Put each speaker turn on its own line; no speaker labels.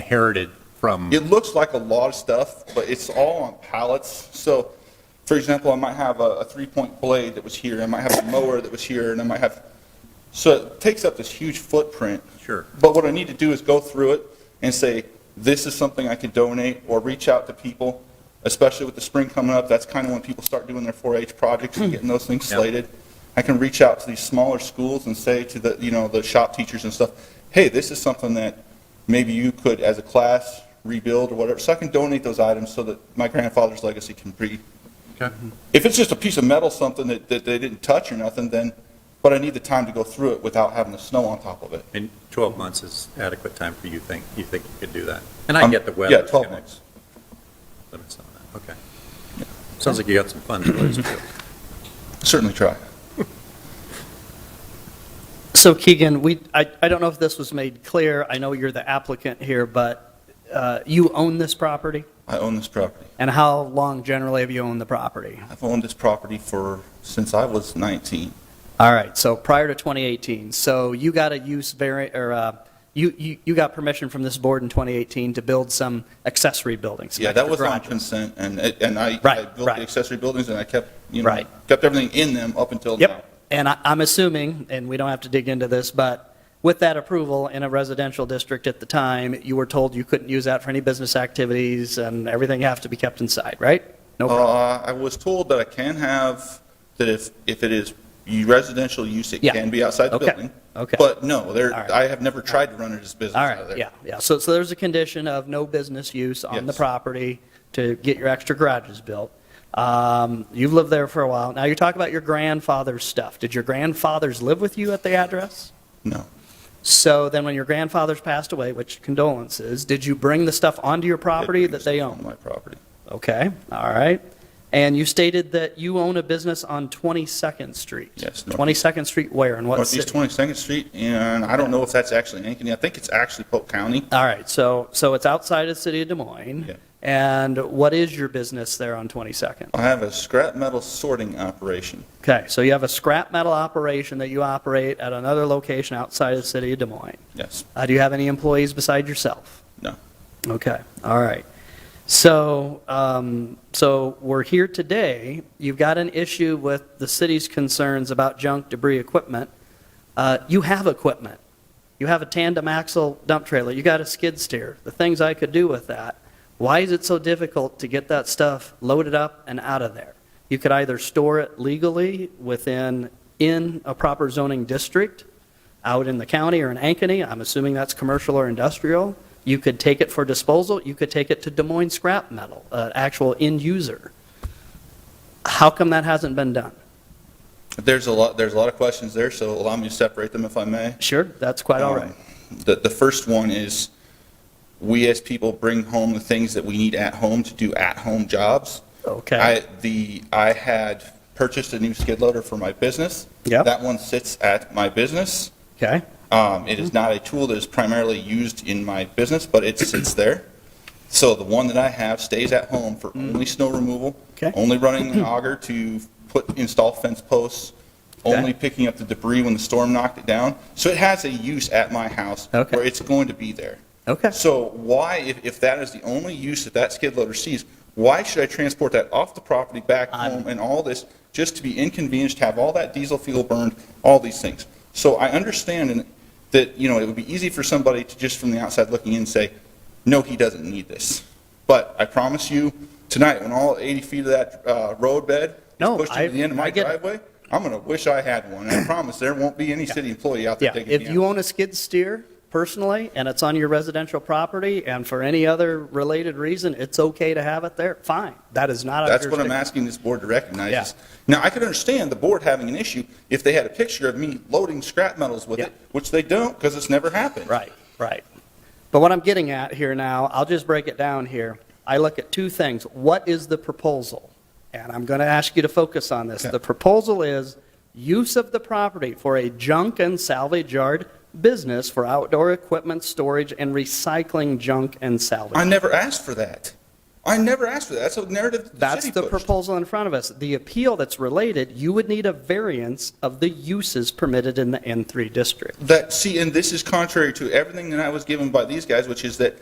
inherited from,
It looks like a lot of stuff, but it's all on pallets. So, for example, I might have a, a three-point blade that was here, I might have a mower that was here, and I might have, so it takes up this huge footprint.
Sure.
But what I need to do is go through it and say, this is something I could donate, or reach out to people, especially with the spring coming up, that's kind of when people start doing their 4-H projects and getting those things
Yeah.
slated. I can reach out to these smaller schools and say to the, you know, the shop teachers and stuff, hey, this is something that maybe you could, as a class, rebuild or whatever, so I can donate those items so that my grandfather's legacy can be.
Okay.
If it's just a piece of metal, something that, that they didn't touch or nothing, then, but I need the time to go through it without having the snow on top of it.
and 12 months is adequate time for you think, you think you could do that? And I
Um,
get the weather.
Yeah, 12 months.
Limits on that, okay. Sounds like you got some fun stories, too.
Certainly try.
So Keegan, we, I, I don't know if this was made clear, I know you're the applicant here, but uh, you own this property?
I own this property.
And how long generally have you owned the property?
I've owned this property for, since I was 19.
All right, so prior to 2018, so you got a use vari, or uh, you, you, you got permission from this board in 2018 to build some accessory buildings? some
Yeah, that
extra
was on
garages.
consent, and, it- and I I
Right,
built the
right.
accessory buildings, and I kept, you know,
Right.
kept everything in them up until now.
Yep, and I, I'm assuming, and we don't have to dig into this, but with that approval in a residential district at the time, you were told you couldn't use that for any business activities and everything have to be kept inside, right? No problem.
Uh, I was told that I can have, that if, if it is residential use, it
Yeah.
can be outside the
Okay,
building.
okay.
But no, there,
All right.
I have never tried to run it as business
All
out of
right,
there.
yeah, yeah. So, so there's a condition of no business use on the
Yes.
property to get your extra garages built. Um, You've lived there for a while. Now, you talk about your grandfather's stuff. Did your grandfathers live with you at the address?
No,
So then when your grandfathers passed away, which condolences, did you bring the stuff onto your property that they
on
own?
my property.
Okay, all right. And you stated that you own a business on 22nd Street?
Yes, northeast.
22nd Street where and what
Northeast
city?
22nd Street, and I don't know if that's actually Ankeny. I think it's actually Polk County.
All right, so, so it's outside of the city of Des Moines?
Yeah.
And what is your business there on 22nd?
I have a scrap metal sorting operation.
Okay, so you have a scrap metal operation that you operate at another location outside of the city of Des Moines.
Yes,
Uh, Do you have any employees beside yourself?
No.
Okay, all right. So, um, so we're here today, you've got an issue with the city's concerns about junk debris equipment. Uh, You have equipment. You have a tandem axle dump trailer, you got a skid steer, the things I could do with that. Why is it so difficult to get that stuff loaded up and out of there? You could either store it legally within, in a proper zoning district, out in the county or in Ankeny, I'm assuming that's commercial or industrial. You could take it for disposal, you could take it to Des Moines scrap metal, uh, actual end user. How come that hasn't been done?
There's a lot, there's a lot of questions there, so allow me to separate them if I may.
Sure, that's quite all right.
Um, The, the first one is, we as people bring home the things that we need at home to do at-home jobs.
Okay,
I, the, I had purchased a new skid loader for my business.
Yep.
That one sits at my business.
okay,
Um, It
Mm-hmm.
is not a tool that is primarily used in my business, but it sits there. So the one that I have stays at home for only snow removal,
Mm-hmm. Okay.
only running the auger to put, install fence posts,
Okay.
only picking up the debris when the storm knocked it down. So it has a use at my house
Okay.
where it's going to be there.
okay.
So why, if, if that is the only use that that skid loader sees, why should I transport that off the property back
I'm-
home and all this, just to be inconvenienced, to have all that diesel fuel burned, all these things? So I understand and- that, you know, it would be easy for somebody to just from the outside looking in say, no, he doesn't need this. But I promise you, tonight, when all 80 feet of that uh, road bed is
No,
pushed
I-
to the end of
I
my
get it.
driveway, I'm going to wish I had one. And I promise there won't be any city employee out there
Yeah,
taking me
if
out.
you own a skid steer personally, and it's on your residential property, and for any other related reason, it's okay to have it there, fine. That is not our
That's what
jurisdiction.
I'm asking this board to recognize.
Yeah.
is- Now, I could understand the board having an issue if they had a picture of me loading scrap metals with it,
Yeah.
which they don't because it's never happened.
Right, right. But what I'm getting at here now, I'll just break it down here. I look at two things. What is the proposal? And I'm going to ask you to focus on this.
Okay.
The proposal is use of the property for a junk and salvage yard business for outdoor equipment storage and recycling junk and
I
salvage.
never asked for that. I never asked for that. That's a narrative that the
That's
city
the
pushed.
proposal in front of us. The appeal that's related, you would need a variance of the uses permitted in the N3 district.
That, see, and this is contrary to everything that I was given by these guys, which is that